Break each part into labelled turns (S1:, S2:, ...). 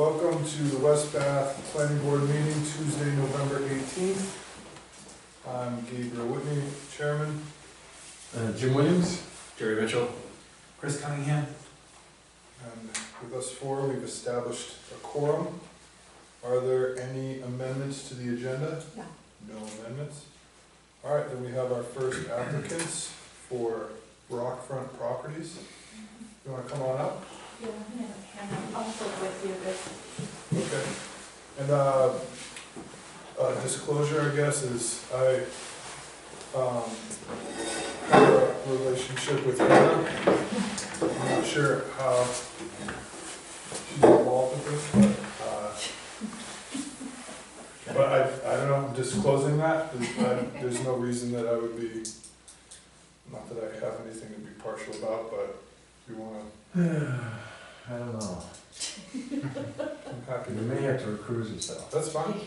S1: Uh, to the West Bath Planning Board meeting Tuesday, November eighteenth. I'm Gabriel Whitney, chairman.
S2: Uh, Jim Williams?
S3: Jerry Mitchell.
S2: Chris Cunningham.
S1: And with us four, we've established a quorum. Are there any amendments to the agenda?
S4: No.
S1: No amendments? All right, then we have our first applicants for Rockfront Properties. You wanna come on up?
S4: Yeah, I'm also with you, but
S1: Okay. And, uh, uh, disclosure, I guess, is I, um, have a relationship with Hannah. I'm not sure how she's involved with this, but, uh, but I, I don't know, I'm disclosing that, there's, I- there's no reason that I would be, not that I have anything to be partial about, but if you wanna,
S2: I don't know.
S1: I'm happy
S2: You
S1: to.
S2: may have to recruit yourself.
S1: That's fine.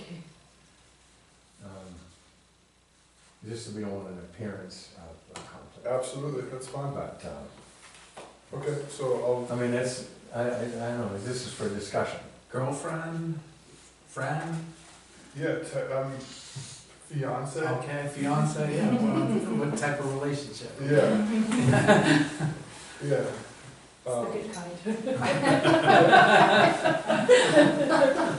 S2: Um, Just so we don't want an appearance of a conflict. Uh,
S1: Absolutely, that's fine.
S2: But, uh,
S1: Okay, so
S2: I mean, that's, I, I, I don't know, this is for discussion.
S3: Girlfriend, friend,
S1: I'll, yeah, te- um, fiance.
S3: okay, fiance, yeah, what, what type of relationship?
S1: Yeah. Yeah. Um,
S4: it's the good kind.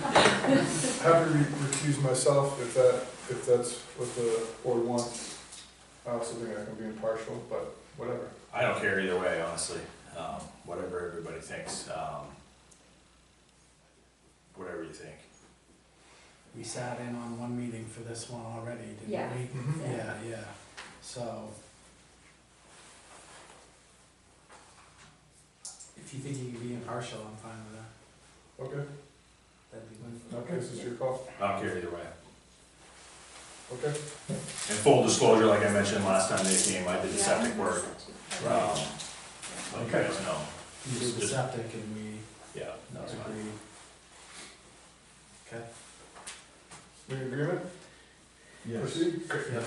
S1: happy to recuse myself if that, if that's what the board wants. I also think I can be impartial, but whatever.
S5: I don't care either way, honestly, um, whatever everybody thinks, um, whatever you think.
S3: We sat in on one meeting for this one already, didn't we?
S4: Yeah.
S6: Mm-hmm.
S1: Mhm.
S3: Yeah, yeah, so. If you think you can be impartial, I'm fine with that,
S1: Okay,
S3: that'd be good.
S1: okay, this is your call.
S5: I don't care either way.
S1: Okay,
S5: And full disclosure, like I mentioned last time they came, I did the septic work, um, let you guys know,
S3: You did the septic and we
S5: yeah, no, it's fine.
S3: agreed. Okay,
S1: we in agreement? Proceed? Great.
S3: yeah,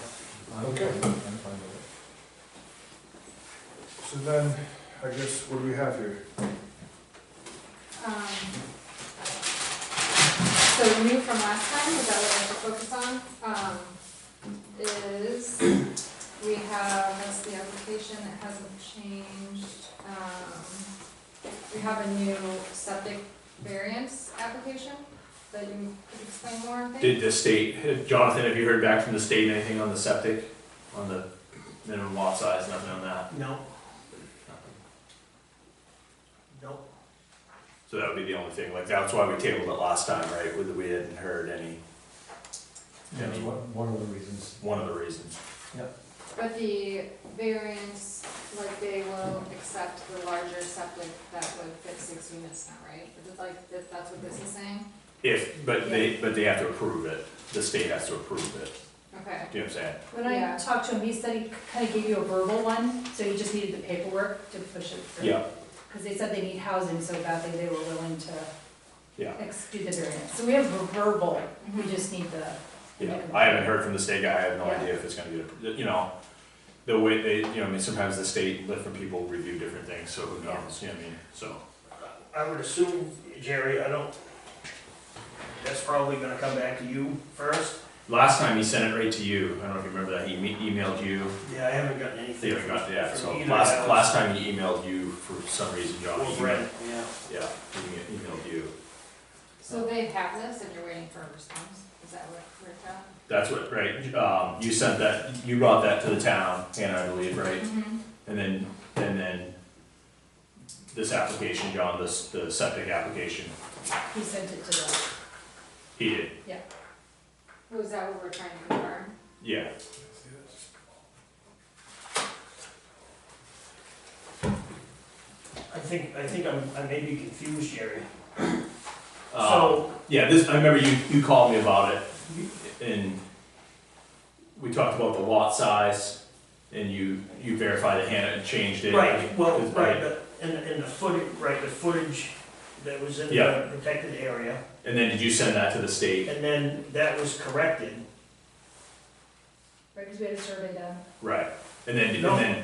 S2: I'm
S1: Okay.
S2: fine- I'm fine with
S1: So then, I guess, what do we have here?
S6: Um, So new from last time, is that what I have to focus on, um, is, we have, that's the application that hasn't changed. Um, We have a new septic variance application that you could explain more, I think.
S5: Did the state, Jonathan, have you heard back from the state, anything on the septic, on the minimum lot size, nothing on that?
S7: No,
S5: Nothing.
S7: no,
S5: So that would be the only thing, like, that's why we tabled it last time, right, with, we hadn't heard any,
S2: it. That's one, one of the reasons.
S5: one of the reasons.
S6: But the variance, like they will accept the larger septic that would fit six units now, right? Is it like, that- that's what this is saying?
S5: If, but they, but they have to approve it, the state has to approve it,
S6: Okay.
S5: do you know what I'm saying?
S4: When I
S6: Yeah.
S4: talked to him, he said he kind of gave you a verbal one, so you just needed the paperwork to push it through.
S5: Yeah,
S4: Because they said they need housing so badly, they were willing to
S5: yeah,
S4: ex- do the variance. So we have a verbal, we
S6: Mhm.
S4: just need the.
S5: yeah, I haven't heard from the state guy, I have no idea if it's gonna get, approved. you know, the way they, you know, I mean, sometimes the state, different people review different things, so who knows, you know what I mean, so.
S7: I would assume, Jerry, I don't, that's probably gonna come back to you first.
S5: Last time he sent it right to you, I don't know if you remember that, he me- emailed you,
S7: Yeah, I haven't gotten
S5: they
S7: anything.
S5: haven't got, yeah,
S7: from
S5: so
S7: either of
S5: last,
S7: us.
S5: last time he emailed you for some reason, John.
S7: Or
S5: he
S7: Brent, yeah.
S5: emailed- Yeah, he email- emailed you,
S6: So they have this and you're waiting for a response? Is that what worked out?
S5: that's what, right, um, you sent that, you brought that to the town, Hannah, I believe, right? And then, and then this application, John, this, the septic application,
S4: He sent it to the,
S5: he did,
S6: Was that what we're trying to confirm?
S5: yeah.
S7: I think, I think I'm, I may be confused, Jerry.
S5: Um,
S7: So-
S5: Yeah, this, I remember you, you called me about it, and we talked about the lot size, and you, you verified that Hannah had changed it.
S7: Right, well,
S5: Is-
S7: right, but, and, and the footage, right, the footage that was in
S5: Yeah.
S7: the protected area,
S5: And then did you send that to the state?
S7: and then that was corrected.
S4: right, because we had a survey done.
S5: Right, and then, and
S7: No.
S5: then,